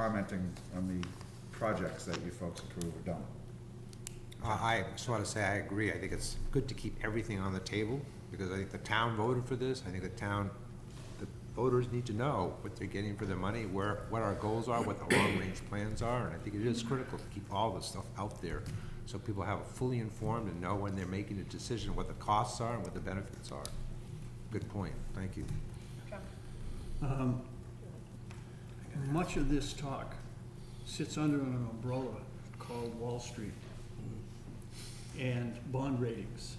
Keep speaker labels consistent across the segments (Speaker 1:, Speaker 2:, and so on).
Speaker 1: commenting on the projects that you folks approve or don't.
Speaker 2: I I just want to say I agree. I think it's good to keep everything on the table because I think the town voted for this. I think the town, the voters need to know what they're getting for their money, where, what our goals are, what the long-range plans are. And I think it is critical to keep all this stuff out there so people have it fully informed and know when they're making a decision, what the costs are and what the benefits are. Good point. Thank you.
Speaker 3: Much of this talk sits under an umbrella called Wall Street and bond ratings.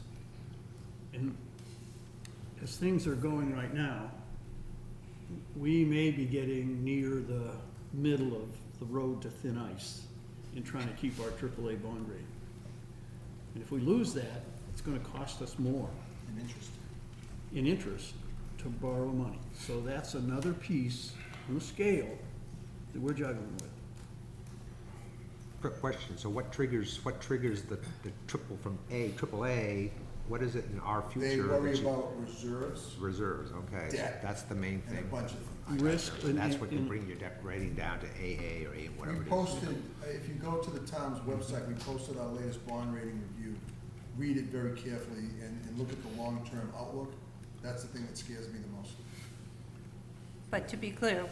Speaker 3: And as things are going right now, we may be getting near the middle of the road to thin ice in trying to keep our AAA bond rating. And if we lose that, it's gonna cost us more
Speaker 4: and interest.
Speaker 3: in interest to borrow money. So that's another piece on the scale that we're juggling with.
Speaker 2: Quick question. So what triggers, what triggers the, the triple from A, triple A? What is it in our future?
Speaker 4: They worry
Speaker 2: that you-
Speaker 4: about reserves
Speaker 2: Reserves, okay, so
Speaker 4: Debt.
Speaker 2: that's the main
Speaker 4: and a
Speaker 2: thing.
Speaker 4: bunch of things.
Speaker 3: Risk and-
Speaker 2: That's what can
Speaker 3: and-
Speaker 2: bring your debt rating down to AA or A,
Speaker 4: We
Speaker 2: whatever it is.
Speaker 4: posted, if you go to the town's website, we posted our latest bond rating review. Read it very carefully and, and look at the long-term outlook. That's the thing that scares me the most.
Speaker 5: But to be clear,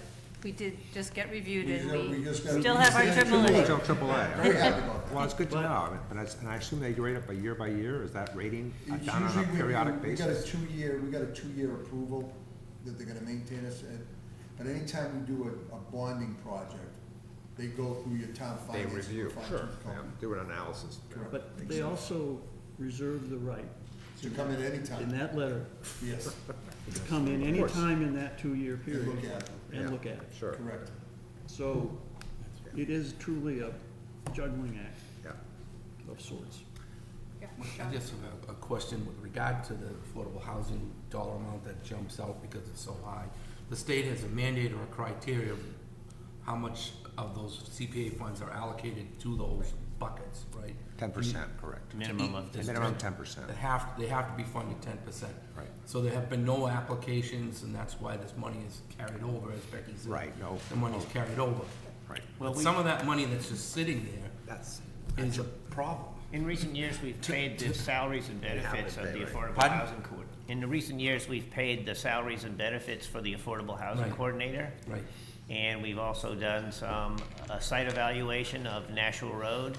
Speaker 5: we did just get reviewed
Speaker 4: We
Speaker 5: and
Speaker 4: ju- we
Speaker 5: we
Speaker 4: just got-
Speaker 5: still
Speaker 4: we
Speaker 5: have our
Speaker 4: just got
Speaker 5: triple
Speaker 4: AAA.
Speaker 5: A.
Speaker 2: Still triple A.
Speaker 4: Very happy about that.
Speaker 2: Well, it's good to know, I mean, but I, s- and I assume they rate up by year by year, is that rating uh,
Speaker 4: It's
Speaker 2: done on
Speaker 4: usually
Speaker 2: a
Speaker 4: we-
Speaker 2: periodic
Speaker 4: We got a
Speaker 2: basis?
Speaker 4: two-year, we got a two-year approval that they're gonna maintain us at. But anytime we do a, a bonding project, they go through your town
Speaker 2: They
Speaker 4: finance.
Speaker 2: review,
Speaker 4: finance
Speaker 2: sure, yeah,
Speaker 4: company
Speaker 2: do an analysis.
Speaker 4: Correct.
Speaker 3: But they also reserve the right
Speaker 4: To come in
Speaker 3: in
Speaker 4: anytime,
Speaker 3: that letter
Speaker 4: yes,
Speaker 3: to come in
Speaker 2: Of
Speaker 3: any
Speaker 2: course.
Speaker 3: time in that two-year
Speaker 4: and look
Speaker 3: period
Speaker 4: at it,
Speaker 2: Yeah,
Speaker 3: and look at it.
Speaker 2: Sure,
Speaker 4: correct.
Speaker 3: So it is truly a juggling act
Speaker 2: yeah.
Speaker 3: of sorts.
Speaker 6: I just have a- a question with regard to the affordable housing dollar amount that jumps out because it's so high. The state has a mandate or a criteria of how much of those CPA funds are allocated to those buckets, right?
Speaker 2: Ten percent, correct.
Speaker 7: Minimum of
Speaker 6: To each-
Speaker 2: Minimum 10%.
Speaker 6: They have, they have to be funded ten percent.
Speaker 2: Right.
Speaker 6: So there have been no applications, and that's why this money is carried over, as Becky said.
Speaker 2: Right, no.
Speaker 6: The money's carried over.
Speaker 2: Right,
Speaker 7: Well,
Speaker 6: But
Speaker 7: we-
Speaker 6: some of that money that's just sitting there
Speaker 2: that's,
Speaker 6: is a problem.
Speaker 7: In recent years, we've paid the salaries and benefits of the Affordable
Speaker 6: Pardon?
Speaker 7: Housing Coord. In the recent years, we've paid the salaries and benefits for the Affordable Housing
Speaker 6: Right.
Speaker 7: Coordinator.
Speaker 6: Right.
Speaker 7: And we've also done some, a site evaluation of Nashua Road.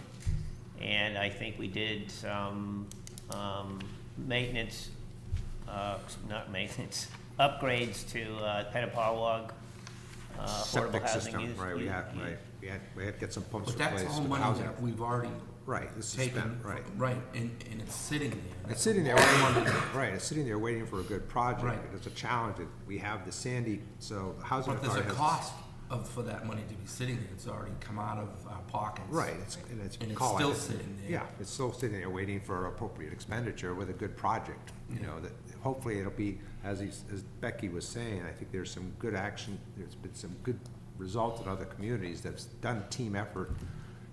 Speaker 7: And I think we did some, um, maintenance, uh, not maintenance, upgrades to, uh, Petapawag, uh, Affordable
Speaker 2: septic
Speaker 7: Housing
Speaker 2: system,
Speaker 7: Use.
Speaker 2: right, we
Speaker 7: Use-
Speaker 2: have, right, we had, we had to get some pumps
Speaker 6: But that's
Speaker 2: replaced
Speaker 6: all
Speaker 2: with
Speaker 6: money
Speaker 2: housing.
Speaker 6: that we've already
Speaker 2: Right, this is
Speaker 6: taken,
Speaker 2: spent, right.
Speaker 6: right, and, and it's sitting there.
Speaker 2: It's sitting there waiting, right, it's sitting there waiting for a good project,
Speaker 6: Right.
Speaker 2: but it's a challenge, that we have the Sandy, so the housing
Speaker 6: But there's
Speaker 2: authority
Speaker 6: a
Speaker 2: has.
Speaker 6: cost of, for that money to be sitting there, it's already come out of our pockets.
Speaker 2: Right, it's, and it's.
Speaker 6: And it's
Speaker 2: call it-
Speaker 6: still sitting there.
Speaker 2: Yeah, it's still sitting there waiting for appropriate expenditure with a good project, you know, that hopefully it'll be, as he's, as Becky was saying, I think there's some good action, there's been some good results in other communities that's done team effort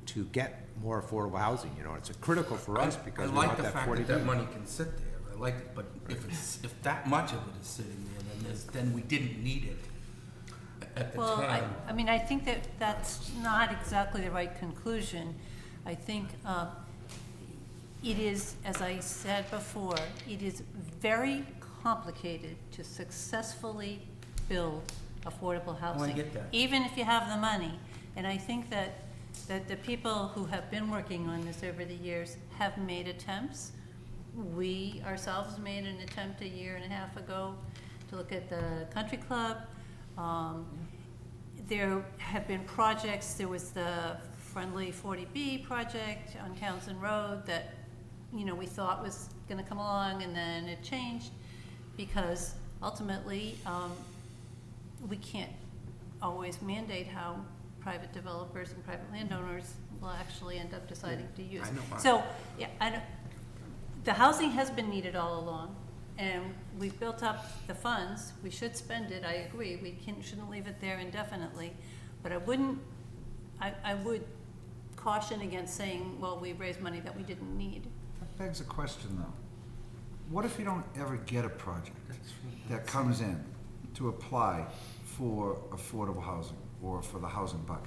Speaker 2: to get more affordable housing, you know, it's critical for us because we want that
Speaker 6: I like
Speaker 2: forty
Speaker 6: the fact
Speaker 2: B.
Speaker 6: that that money can sit there, I like it, but if it's, if that much of it is sitting there, then there's, then we didn't need it at the
Speaker 5: Well, I,
Speaker 6: time.
Speaker 5: I mean, I think that that's not exactly the right conclusion. I think uh, it is, as I said before, it is very complicated to successfully build affordable housing.
Speaker 6: get that.
Speaker 5: Even if you have the money. And I think that, that the people who have been working on this over the years have made attempts. We ourselves made an attempt a year and a half ago to look at the country club. Um, There have been projects, there was the Friendly 40B project on Townsend Road that, you know, we thought was gonna come along and then it changed because ultimately, um, we can't always mandate how private developers and private landowners will actually end up deciding to use.
Speaker 6: I know.
Speaker 5: So, yeah, I don't, the housing has been needed all along, and we've built up the funds, we should spend it, I agree, we can, shouldn't leave it there indefinitely. But I wouldn't, I, I would caution against saying, well, we raised money that we didn't need.
Speaker 4: That
Speaker 8: Begs a question, though. What if you don't ever get a project that comes in to apply for affordable housing or for the housing bucket?